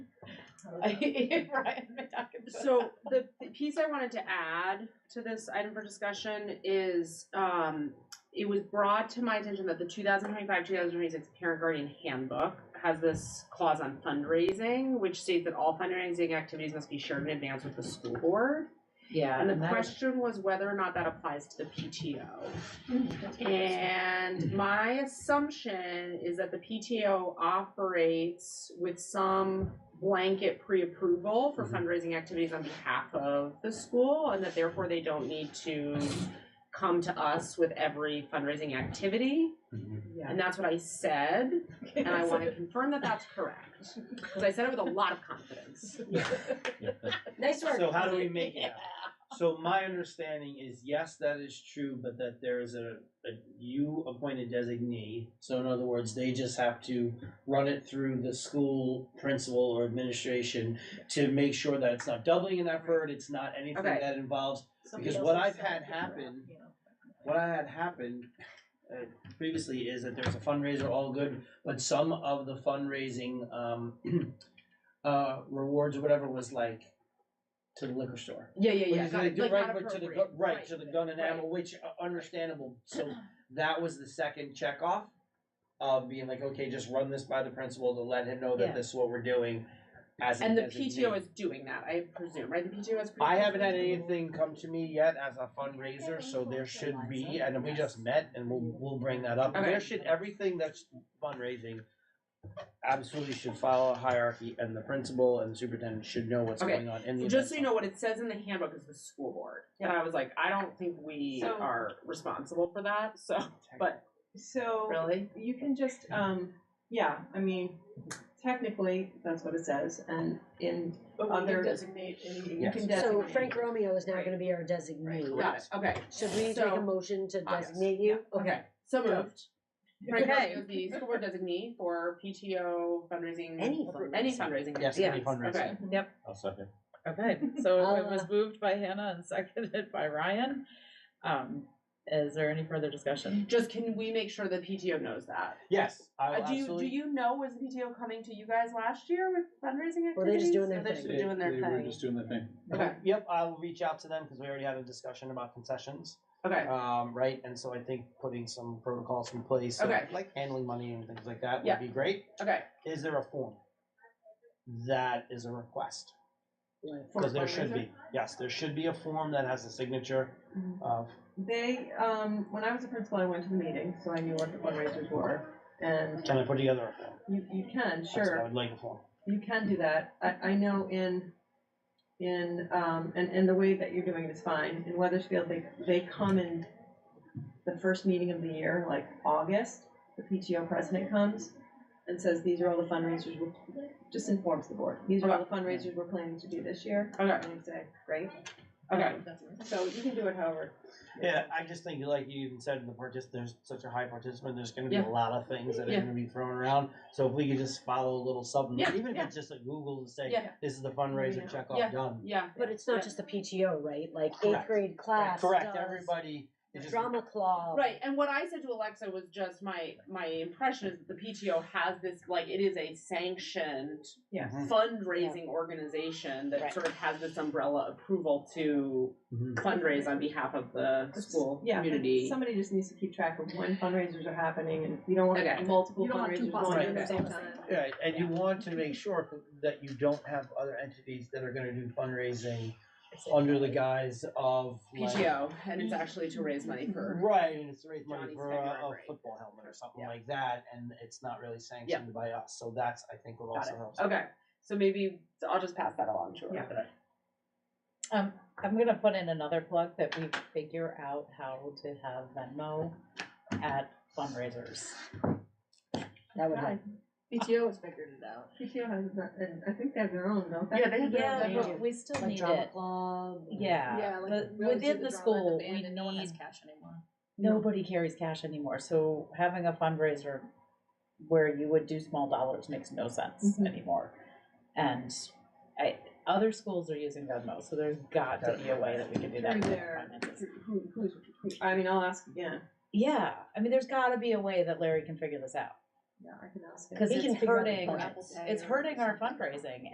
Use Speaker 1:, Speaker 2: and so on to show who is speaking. Speaker 1: Right, I'm not talking about
Speaker 2: So the, the piece I wanted to add to this item for discussion is, um, it was brought to my attention that the two thousand twenty-five, two thousand twenty-six parent guardian handbook has this clause on fundraising, which states that all fundraising activities must be shared in advance with the school board.
Speaker 1: Yeah,
Speaker 2: And the
Speaker 1: that was-
Speaker 2: question was whether or not that applies to the PTO.
Speaker 3: Mm-hmm.
Speaker 2: And my assumption is that the PTO operates with some blanket pre-approval for
Speaker 3: Mm-hmm.
Speaker 4: Mhm.
Speaker 2: fundraising activities on behalf of the school, and that therefore they don't need to come to us with every fundraising activity.
Speaker 1: yeah.
Speaker 2: And that's what I said, and I want to confirm that that's correct, because I said it with a lot of confidence.
Speaker 1: Nice work.
Speaker 3: So how do we make it? So my understanding is, yes, that is true, but that there is a, a you appointed designee. So in other words, they just have to run it through the school principal or administration to make sure that it's not doubling an effort, it's not anything
Speaker 2: Okay.
Speaker 3: that involves,
Speaker 5: Somebody
Speaker 3: because what
Speaker 5: else's
Speaker 3: I've had
Speaker 5: son, you know,
Speaker 3: happen-
Speaker 5: you know.
Speaker 3: what I had happened uh, previously is that there's a fundraiser, all good, but some of the fundraising, um, uh, rewards or whatever was like to the liquor store.
Speaker 2: Yeah, yeah,
Speaker 3: Which
Speaker 2: yeah.
Speaker 3: is
Speaker 2: got
Speaker 3: like
Speaker 2: it,
Speaker 3: the
Speaker 2: like,
Speaker 3: right,
Speaker 2: not
Speaker 3: but to the
Speaker 2: appropriate.
Speaker 3: gu- right to the gun and
Speaker 2: right.
Speaker 3: ammo, which uh, understandable. So that was the second checkoff of being like, okay, just run this by the principal to let him know that
Speaker 1: Yeah.
Speaker 3: this is what we're doing. As a
Speaker 2: And the
Speaker 3: designee.
Speaker 2: PTO is doing that, I presume, right? The PTO is.
Speaker 3: I haven't had anything come to me yet as a fundraiser, so there should be, and we just met, and we'll we'll bring that up.
Speaker 2: Okay.
Speaker 3: There should everything that's fundraising absolutely should follow a hierarchy, and the principal and the superintendent should know what's
Speaker 2: Okay.
Speaker 3: going on in the
Speaker 2: Just
Speaker 3: event
Speaker 2: so you know, what it says in the handbook is the school board, and I was like, I don't think we
Speaker 5: So-
Speaker 2: are responsible for that, so, but,
Speaker 5: So
Speaker 2: really?
Speaker 5: you can just, um, yeah, I mean, technically, that's what it says, and in other. Designate. You
Speaker 3: Yes.
Speaker 5: can
Speaker 6: So
Speaker 5: designate.
Speaker 6: Frank Romeo is now
Speaker 5: Right.
Speaker 6: gonna be our designee.
Speaker 2: Got it, okay.
Speaker 6: Should we take a
Speaker 2: So-
Speaker 6: motion to
Speaker 2: Ah, yes.
Speaker 6: designate you?
Speaker 2: Okay, so moved. Frank
Speaker 6: Okay.
Speaker 2: Rubio, the school board designee for PTO fundraising.
Speaker 6: Any
Speaker 2: Any
Speaker 6: fundraising.
Speaker 2: fundraising.
Speaker 3: Yes, any fundraising.
Speaker 2: Okay,
Speaker 4: I'll second.
Speaker 1: Okay, so it was
Speaker 6: Uh,
Speaker 1: moved by Hannah and seconded by Ryan. Um, is there any further discussion?
Speaker 2: just can we make sure the PTO knows that?
Speaker 3: Yes, I will
Speaker 2: Uh, Do you, do
Speaker 3: absolutely-
Speaker 2: you know, was the PTO coming to you guys last year with fundraising activities?
Speaker 6: Well, they're just doing their
Speaker 2: Or They're just
Speaker 6: thing.
Speaker 2: doing their
Speaker 7: They were
Speaker 2: thing,
Speaker 7: just doing their thing.
Speaker 2: okay,
Speaker 3: Yep, I will reach out to them because we already had a discussion about concessions,
Speaker 2: okay,
Speaker 3: um, right? And so I think putting some protocols in place, of,
Speaker 2: Okay.
Speaker 3: like handling money and things like that,
Speaker 2: Yeah.
Speaker 3: would be great.
Speaker 2: okay.
Speaker 3: Is there a form? That is a request
Speaker 2: For
Speaker 3: because there should
Speaker 2: fundraiser? Mm-hmm.
Speaker 3: be. Yes, there should be a form that has a signature
Speaker 5: Mhm.
Speaker 3: of.
Speaker 5: They, um, when I was a principal, I went to the meeting, so I knew what the fundraisers were, and
Speaker 3: Can I put together a form?
Speaker 5: you, you can,
Speaker 3: That's what I
Speaker 5: sure,
Speaker 3: would like a form.
Speaker 5: you can do that. I, I know in, in, um, and, and the way that you're doing it is fine. In Weathersfield, they, they come in the first meeting of the year, like August, the PTO president comes and says, these are all the fundraisers, we're just informs the board, these are all the fundraisers we're planning to do this year.
Speaker 2: Okay.
Speaker 5: And you say, great.
Speaker 2: Okay.
Speaker 6: Oh,
Speaker 5: So you can do it however.
Speaker 3: Yeah, I just think, like you even said, the partic- there's such a high participant. There's going to be
Speaker 2: Yeah.
Speaker 3: a lot of things that are
Speaker 2: Yeah.
Speaker 3: going to be thrown around. So if we could just follow a little something,
Speaker 2: Yeah,
Speaker 3: even if
Speaker 2: yeah.
Speaker 3: it's just a Google to say,
Speaker 2: Yeah.
Speaker 3: "This is the fundraiser
Speaker 5: Yeah.
Speaker 3: checkoff
Speaker 2: Yeah.
Speaker 3: done."
Speaker 2: Yeah,
Speaker 6: But it's
Speaker 2: Yeah.
Speaker 6: not just the PTO, right? Like eighth
Speaker 3: Correct.
Speaker 6: grade class
Speaker 3: Correct
Speaker 6: does
Speaker 3: everybody. It just-
Speaker 6: Drama club.
Speaker 2: Right, and what I said to Alexa was just my my impression is that the PTO has this like it is a sanctioned
Speaker 5: Yes.
Speaker 2: fundraising organization that
Speaker 6: Right.
Speaker 2: sort of has this umbrella approval to
Speaker 3: Mhm.
Speaker 2: fundraise on behalf of the school
Speaker 5: Yeah, but
Speaker 2: community.
Speaker 5: Somebody just needs to keep track of when fundraisers are happening, and you don't
Speaker 2: Okay.
Speaker 5: want multiple
Speaker 1: You don't want two
Speaker 5: fundraisers going at the
Speaker 2: fundraisers
Speaker 5: same
Speaker 1: at the same
Speaker 5: time.
Speaker 3: Right, and you want to make sure that you don't have other entities that are going to do fundraising under the guise of like-
Speaker 2: PTO, and it's actually to raise money for.
Speaker 3: Right, and it's to raise money
Speaker 2: Johnny's
Speaker 3: for a,
Speaker 2: February
Speaker 3: a
Speaker 2: break.
Speaker 3: football helmet or something
Speaker 2: Yeah.
Speaker 3: like that, and it's not really sanctioned by us. So that's I think what
Speaker 2: Got
Speaker 3: also
Speaker 2: it.
Speaker 3: helps.
Speaker 2: Okay, so maybe so I'll just pass that along to her.
Speaker 5: Mm-hmm. Yeah.
Speaker 1: Um, I'm gonna put in another plug that we figure out how to have Venmo at fundraisers.
Speaker 6: That would help.
Speaker 1: PTO has figured it out.
Speaker 5: PTO has, that, and I think they have their own, don't they?
Speaker 2: Yeah, they have
Speaker 6: Yeah,
Speaker 2: their
Speaker 6: they
Speaker 2: own.
Speaker 6: do.
Speaker 1: But we still
Speaker 6: Like
Speaker 1: need
Speaker 6: drama
Speaker 1: it.
Speaker 6: club.
Speaker 1: Yeah, but within the school, we need,
Speaker 6: cash anymore.
Speaker 1: nobody carries cash anymore, so having a fundraiser where you would do small dollars makes no sense
Speaker 5: Mhm.
Speaker 1: anymore. And I, other schools are using Venmo, so there's got to be a way that we can do that.
Speaker 5: Through
Speaker 1: in our
Speaker 5: their-
Speaker 1: finances.
Speaker 5: Who, who's, who, I mean, I'll ask, yeah,
Speaker 1: Yeah, I mean, there's got to be a way that Larry can figure this out,
Speaker 5: yeah, I can ask. him.
Speaker 1: because
Speaker 6: He
Speaker 1: it's
Speaker 6: can figure out
Speaker 1: hurting,
Speaker 6: the budget.
Speaker 1: it's hurting our fundraising,